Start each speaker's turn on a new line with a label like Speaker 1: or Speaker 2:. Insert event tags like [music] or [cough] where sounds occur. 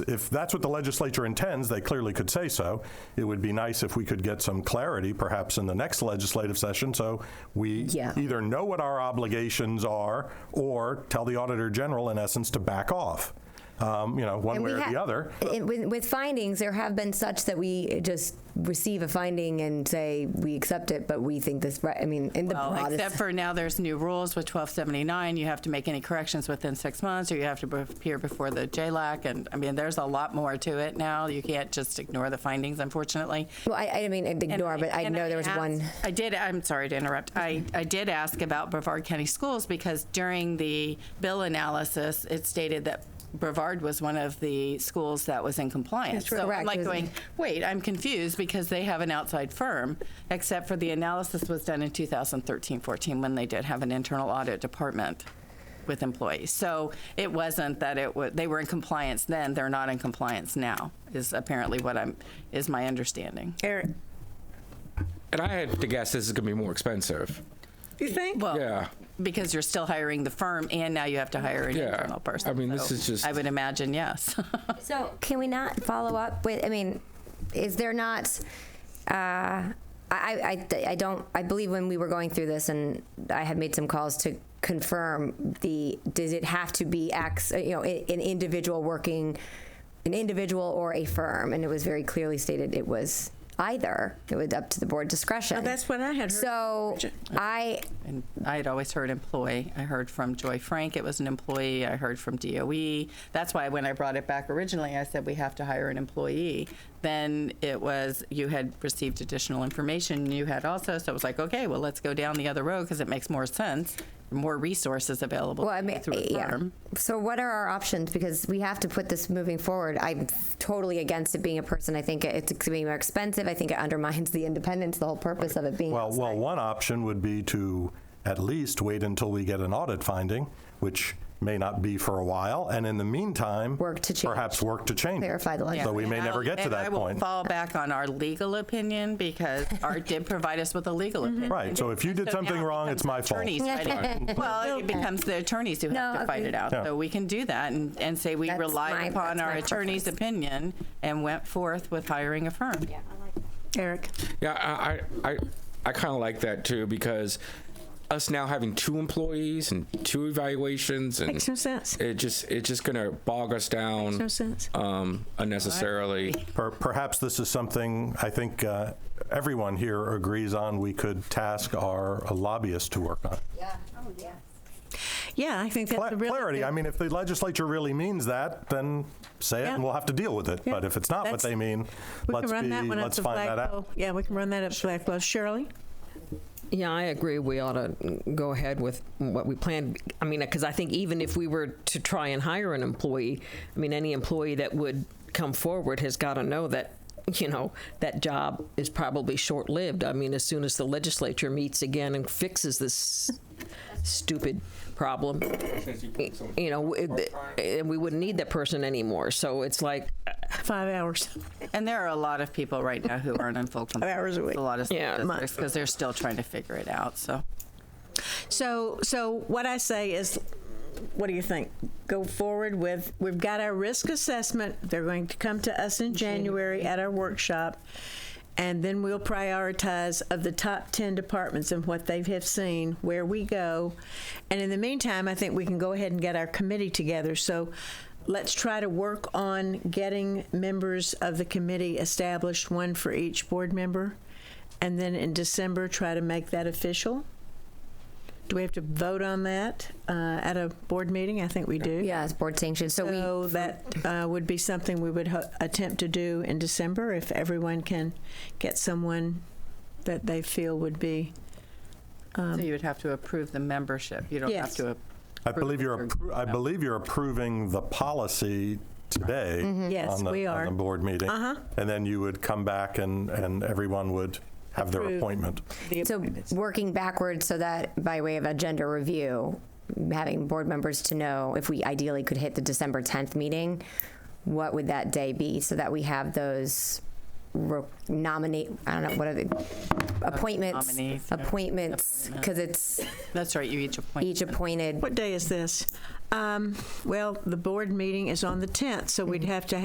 Speaker 1: if that's what the legislature intends, they clearly could say so. It would be nice if we could get some clarity, perhaps in the next legislative session, so we
Speaker 2: Yeah.
Speaker 1: either know what our obligations are or tell the Auditor General, in essence, to back off, um, you know, one
Speaker 2: And
Speaker 1: way
Speaker 2: we
Speaker 1: or
Speaker 2: ha-
Speaker 1: the other.
Speaker 2: it- with, with findings, there have been such that we just receive a finding and say we accept it, but we think this. Right, I mean, in the
Speaker 3: Well,
Speaker 2: broadest.
Speaker 3: except for now, there's new rules with 1279. You have to make any corrections within six months, or you have to be- appear before the JLAC. And I mean, there's a lot more to it now. You can't just ignore the findings, unfortunately.
Speaker 2: well, I, I mean, I'd
Speaker 3: And
Speaker 2: ignore, but I
Speaker 3: and
Speaker 2: know there was
Speaker 3: asked-
Speaker 2: one.
Speaker 3: I did, I'm sorry to interrupt. I, I did ask about Brevard County Schools because during the bill analysis, it stated that Brevard was one of the schools that was in compliance.
Speaker 2: That's
Speaker 3: So
Speaker 2: correct.
Speaker 3: I'm like
Speaker 2: It was-
Speaker 3: going, wait, I'm confused because they have an outside firm, except for the analysis was done in 2013, 14, when they did have an internal audit department with employees. So it wasn't that it was, they were in compliance then, they're not in compliance now, is apparently what I'm, is my understanding.
Speaker 4: Eric,
Speaker 5: And I had to guess this is going to be more expensive.
Speaker 4: you think?
Speaker 3: Well,
Speaker 5: Yeah.
Speaker 3: because you're still hiring the firm and now you have to hire an
Speaker 5: Yeah.
Speaker 3: internal person.
Speaker 5: I mean, this
Speaker 3: So
Speaker 5: is just-
Speaker 3: I would imagine, yes. [laughs]
Speaker 2: So can we not follow up with? I mean, is there not? Uh, I, I, I don't. I believe when we were going through this, and I had made some calls to confirm the. Does it have to be X? uh, You know, i- an individual working, an individual or a firm, and it was very clearly stated it was either. It was up to the board discretion.
Speaker 4: Oh, that's what I had heard.
Speaker 2: So I
Speaker 3: and I had always heard employee. I heard from Joy Frank it was an employee. I heard from DOE. That's why when I brought it back originally, I said we have to hire an employee. Then it was you had received additional information. You had also, so it was like, okay, well, let's go down the other road because it makes more sense, more resources available
Speaker 2: Well, I mean,
Speaker 3: through a
Speaker 2: yeah.
Speaker 3: firm.
Speaker 2: So what are our options? Because we have to put this moving forward. I'm totally against it being a person. I think it's going to be more expensive. I think it undermines the independence, the whole purpose of it being.
Speaker 1: Well, well, one option would be to at least wait until we get an audit finding, which may not be for a while, and in the meantime,
Speaker 2: Work to change.
Speaker 1: perhaps work to change. it.
Speaker 2: Clarify the
Speaker 3: Yeah,
Speaker 1: So we may
Speaker 3: and
Speaker 1: never
Speaker 3: I'll-
Speaker 1: get to
Speaker 3: and
Speaker 1: that
Speaker 3: I will
Speaker 1: point.
Speaker 3: fall back on our legal opinion because Art did provide us with a legal opinion.
Speaker 1: Right, so if you did
Speaker 3: So
Speaker 1: something
Speaker 3: now it
Speaker 1: wrong, it's
Speaker 3: becomes
Speaker 1: my fault.
Speaker 3: attorneys fighting it. Well, it becomes the attorneys who have
Speaker 2: No,
Speaker 3: to fight
Speaker 2: agree.
Speaker 3: it out.
Speaker 1: Yeah.
Speaker 3: So we can do that and, and say we
Speaker 2: That's my-
Speaker 3: relied upon
Speaker 2: that's
Speaker 3: our
Speaker 2: my
Speaker 3: attorney's
Speaker 2: preference.
Speaker 3: opinion and went forth with hiring a firm.
Speaker 4: Eric,
Speaker 5: Yeah, I I I, I kind of like that too because us now having two employees and two evaluations and
Speaker 4: makes no sense.
Speaker 5: it just it's just going to bog us down
Speaker 4: no sense.
Speaker 5: um unnecessarily.
Speaker 1: Per- Perhaps this is something I think uh, everyone here agrees on, we could task our lobbyist to work on.
Speaker 2: Oh,
Speaker 4: Yeah, I think that's
Speaker 1: Cla-
Speaker 4: a really
Speaker 1: Clarity,
Speaker 4: good-
Speaker 1: I mean, if the legislature really means that, then say it and
Speaker 4: Yeah.
Speaker 1: we'll have to deal with it. But if it's not what
Speaker 4: That's-
Speaker 1: they mean,
Speaker 4: we can
Speaker 1: let's
Speaker 4: run
Speaker 1: be,
Speaker 4: that one up
Speaker 1: let's
Speaker 4: to
Speaker 1: find that out.
Speaker 4: Blackwell. Yeah, we can run that up to Blackwell. Shirley,
Speaker 6: Yeah, I agree. We ought to go ahead with what we planned. I mean, because I think even if we were to try and hire an employee, I mean, any employee that would come forward has got to know that, you know, that job is probably short lived. I mean, as soon as the legislature meets again and fixes this stupid problem, you know, it, and we wouldn't need that person anymore. So it's like,
Speaker 4: five hours.
Speaker 3: And there are a lot of people right now who aren't in full compliance.
Speaker 4: hours a week.
Speaker 3: with A lot of
Speaker 6: Yeah.
Speaker 3: statistics because they're still trying to figure it out, so.
Speaker 4: So, so what I say is, what do you think? Go forward with. We've got our risk assessment. They're going to come to us in January at our workshop, and then we'll prioritize of the top ten departments and what they have seen, where we go, and in the meantime, I think we can go ahead and get our committee together. So. Let's try to work on getting members of the committee established, one for each board member, and then in December try to make that official. Do we have to vote on that uh, at a board meeting? I think we do.
Speaker 2: yeah, it's board sanctioned. So, we.
Speaker 4: So that uh, would be something we would ho- attempt to do in December if everyone can get someone that they feel would be.
Speaker 3: So you would have to approve the membership. You don't have
Speaker 4: Yes.
Speaker 3: to.
Speaker 1: I believe you're,
Speaker 3: approve
Speaker 1: appro- I believe you're approving the policy today.
Speaker 4: Mm-hmm. Yes,
Speaker 1: on the-
Speaker 4: we
Speaker 1: On
Speaker 4: are.
Speaker 1: the board meeting. Uh-huh. And then you would come back and, and everyone would have their
Speaker 4: Approve.
Speaker 1: appointment.
Speaker 2: so working backwards, so that by way of agenda review, having board members to know if we ideally could hit the December 10th meeting, what would that day be, so that we have those re- nominate. I don't know what are the appointments.
Speaker 3: Nominees, yeah.
Speaker 2: appointments, because it's.
Speaker 3: That's right, you each appoint.
Speaker 2: each appointed Mm-hmm.
Speaker 4: What day is this? Um, well, the board meeting is on the 10th, so we'd have to